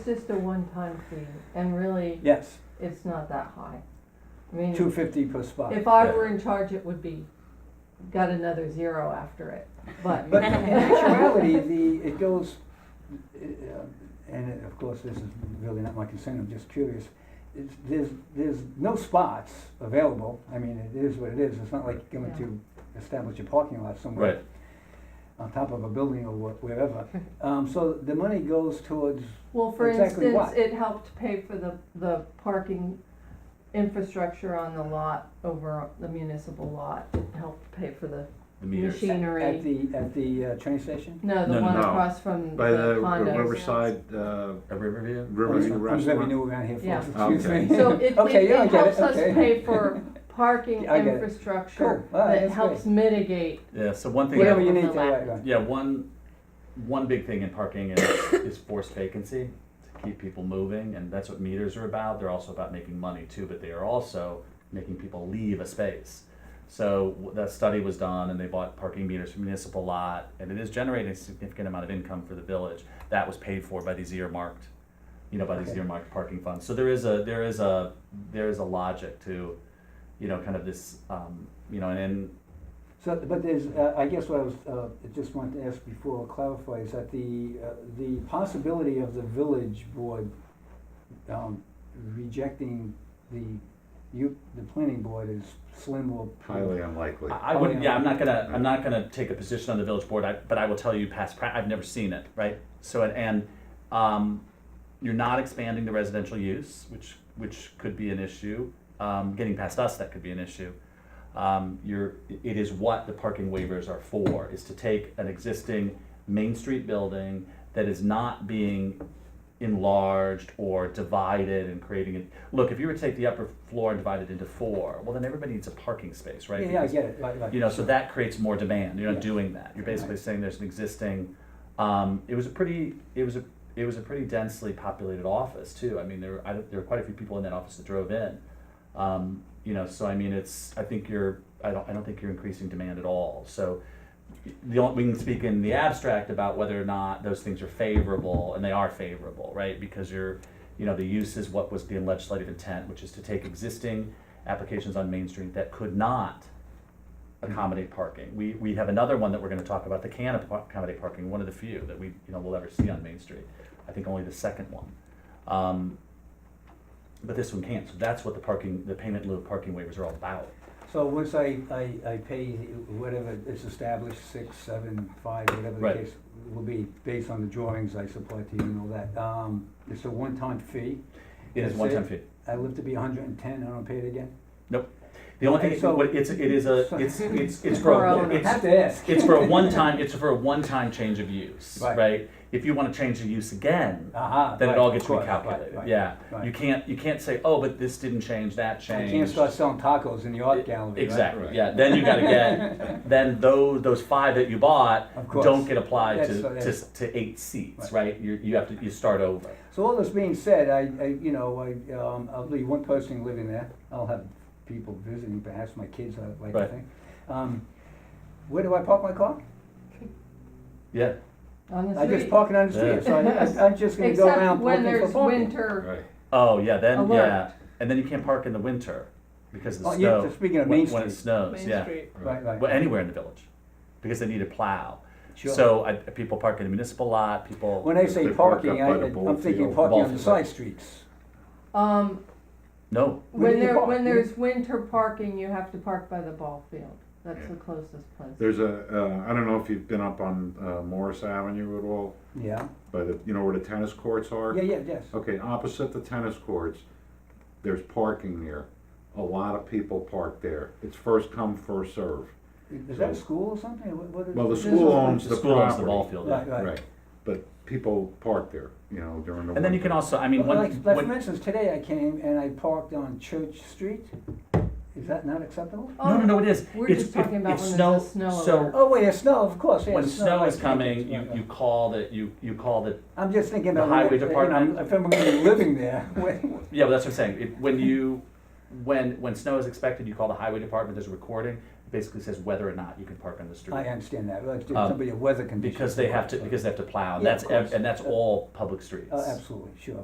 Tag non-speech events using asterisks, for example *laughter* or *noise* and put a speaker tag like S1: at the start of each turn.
S1: It's just a one-time fee, and really,
S2: Yes,
S1: it's not that high. I mean,
S2: two fifty per spot.
S1: Mm. if I
S3: Yeah.
S1: were in charge, it would be, got another zero after it, but.
S2: But
S1: *laughs*
S2: in actuality, the, it goes, uh, and it- of course, this is really not my concern, I'm just curious. It's, there's, there's no spots available, I mean, it is what it is, it's not like going
S1: Yeah.
S2: to establish a parking lot somewhere.
S3: Right.
S2: On top of a building or wha-
S1: *laughs*
S2: wherever, um, so the money goes towards,
S1: Well, for
S2: Exactly
S1: instance,
S2: what?
S1: it helped pay for the, the parking infrastructure on the lot, over the municipal lot, it helped pay for the
S3: The meters.
S2: at
S1: machinery.
S2: the, at the uh, train station?
S1: No,
S3: No,
S1: the
S3: no,
S1: one
S4: no.
S1: across from
S4: By the
S1: the
S4: the
S1: condos.
S4: Riverside, uh,
S3: At Riverview?
S2: Oh,
S4: Riverview
S2: I'm very
S4: Restaurant.
S2: new around here,
S1: Yeah.
S2: folks, excuse
S3: Okay.
S2: me. *laughs*
S1: So it,
S2: Okay,
S1: it,
S2: yeah, I
S1: it
S2: get it,
S1: helps us
S2: okay.
S1: pay
S2: *laughs*
S1: for parking
S2: Yeah, I get it. Cool.
S1: infrastructure
S2: All right,
S1: that
S2: that's
S1: helps mitigate
S3: Yeah, so one thing.
S2: Whatever you
S5: Yeah.
S2: need to, right, right.
S3: Yeah, one, one big thing in parking is, is forced vacancy, to keep people moving, and that's what meters are about, they're also about making money too, but they are also making people leave a space. So w- that study was done, and they bought parking meters from municipal lot, and it is generating a significant amount of income for the village, that was paid for by these earmarked, you know, by these
S2: Okay.
S3: earmarked parking funds, so there is a, there is a, there is a logic to, you know, kind of this, um, you know, and, and
S2: So, but there's, uh, I guess what I was, uh, just wanted to ask before, I clarify, is that the, uh, the possibility of the village board, um, rejecting the, you, the planning board is slim or.
S4: highly unlikely.
S3: I I
S2: Oh,
S3: wouldn't,
S2: yeah.
S3: yeah, I'm not gonna, I'm not gonna take a position on the village board, I, but I will tell you past pra, I've never seen it, right? So, and, and, um, you're not expanding the residential use, which, which could be an issue. Um, getting past us, that could be an issue. Um, you're, it is what the parking waivers are for, is to take an existing Main Street building that is not being enlarged or divided and creating it. Look, if you were to take the upper floor and divide it into four, well, then everybody needs a parking space, right?
S2: Yeah, yeah, I
S3: Because-
S2: get it, right, right.
S3: you know, so that creates more demand. You're
S2: Yeah.
S3: not doing that. You're basically saying there's an existing. Um, it was a pretty. It was a. It was a pretty densely populated office too. I mean, there were, I, don't- there were quite a few people in that office that drove in. Um, you know, so I mean, it's. I think you're. I don't. I don't think you're increasing demand at all. So. The only, we can speak in the abstract about whether or not those things are favorable, and they are favorable, right? Because you're, you know, the use is what was the legislative intent, which is to take existing applications on Main Street that could not
S2: Mm-hmm.
S3: accommodate parking. We, we have another one that we're gonna talk about that can accommodate parking, one of the few that we, you know, will ever see on Main Street. I think only the second one. Um, But this one can't, so that's what the parking, the payment in lieu of parking waivers are all about.
S2: So once I, I, I pay whatever is established, six, seven, five, whatever the
S3: Right.
S2: case will be, based on the drawings I supply to you and all that, um, it's a one-time fee.
S3: It is
S2: That's
S3: one time fee.
S2: I live to be hundred and ten, I don't pay it again.
S3: The only thing,
S2: And so-
S3: what it's, it is a,
S2: so- *laughs*
S3: it's, it's, it's for,
S1: Well,
S3: a-
S2: I have
S3: it's,
S2: to ask.
S3: it's
S2: *laughs*
S3: for a one-time, it's for a one-time change of use,
S2: Right.
S3: right? If you wanna change the use again,
S2: Uh-huh,
S3: then it
S2: right,
S3: all
S2: of
S3: gets
S2: course, right, right.
S3: recalculated, yeah.
S2: right.
S3: You can't, you can't say, oh, but this didn't change, that
S2: I
S3: changed.
S2: can't start selling tacos in the art
S3: It-
S2: gallery, right?
S3: Exactly.
S4: Right.
S3: Yeah. Then you got to
S2: *laughs*
S3: get then those those five that you bought
S2: Of course.
S3: don't get applied
S2: That's-
S3: to,
S2: that's-
S3: to to eight seats,
S2: Right.
S3: right? You you have to you start over.
S2: So all this being said, I, I you know, I, um, I'll leave one person living there. I'll have people visiting, perhaps my kids, I like to
S3: Right.
S2: think. Um, where do I park my car?
S3: Yeah.
S1: on the
S2: I just
S1: street,
S2: park it on the
S3: Yeah.
S2: street,
S1: *laughs*
S2: so I, I, I'm just gonna go
S1: except
S2: around
S1: when
S2: looking for
S1: there's
S2: parking.
S1: winter,
S4: Right.
S3: Oh yeah. Then
S1: Alert.
S3: yeah. And then you can't park in the winter because of the
S2: Oh, yeah,
S3: snow.
S2: so speaking of
S3: when,
S2: Main
S3: when it
S2: Street.
S3: snows, yeah.
S2: Right, right.
S3: Well, anywhere in the village, because they need a plow.
S2: Sure.
S3: So I, people park in the municipal lot. People.
S2: When I
S4: They
S2: say
S4: park up
S2: parking, I,
S4: by the ball
S2: I'm thinking
S4: field.
S2: parking
S3: Ball
S2: on the
S3: field.
S2: side streets.
S1: um,
S3: no.
S2: Where
S1: when
S2: do you
S1: there,
S2: park?
S1: when
S2: You-
S1: there's winter parking, you have to park by the ball field, that's the closest place.
S4: There's a, uh, I don't know if you've been up on, uh, Morris Avenue at all,
S2: Yeah,
S4: but the, you know where the tennis courts are?
S2: yeah, yeah, yes.
S4: Okay, opposite the tennis courts, there's parking there. A lot of people park there. It's first come, first serve.
S2: Is that a school or something? or What, what is?
S4: Well, the
S2: this
S4: school
S2: is-
S4: owns- It's
S3: The
S4: the
S3: school owns the
S4: property.
S3: ball field. yeah.
S2: Right, right.
S4: Right, but people park there, you know, during the.
S3: And then you can
S4: winter.
S3: also, I mean,
S2: Well,
S3: one,
S2: Like, like
S3: one-
S2: for instance, today I came and I parked on Church Street. Is that not acceptable?
S1: Oh,
S3: No, no, no, it is.
S1: We're
S3: It's-
S1: just
S3: if-
S1: talking about
S3: if
S1: when
S3: snow-
S1: there's a snow
S3: so-
S1: alert.
S2: Oh, wait, it's snow, of course, yeah.
S3: when
S2: it's
S3: snow
S2: I
S3: is
S2: can't-
S3: coming,
S2: yeah,
S3: you,
S2: yeah.
S3: you call the, you, you call the,
S2: I'm just thinking
S3: the
S2: about.
S3: highway
S2: when- you know,
S3: department-
S2: If I'm gonna be living there, *laughs* when-
S3: yeah, but that's what I'm saying. It, when you, when, when snow is expected, you call the highway department, there's a recording, it basically says whether or not you can park on the street.
S2: I understand that, like,
S3: Um,
S2: somebody, weather conditions.
S3: Because they
S2: or
S3: have to,
S2: whatever.
S3: because they have to plow, and
S2: Yeah,
S3: that's,
S2: of
S3: ev-
S2: course.
S3: and that's all public streets.
S2: Uh, Absolutely, sure.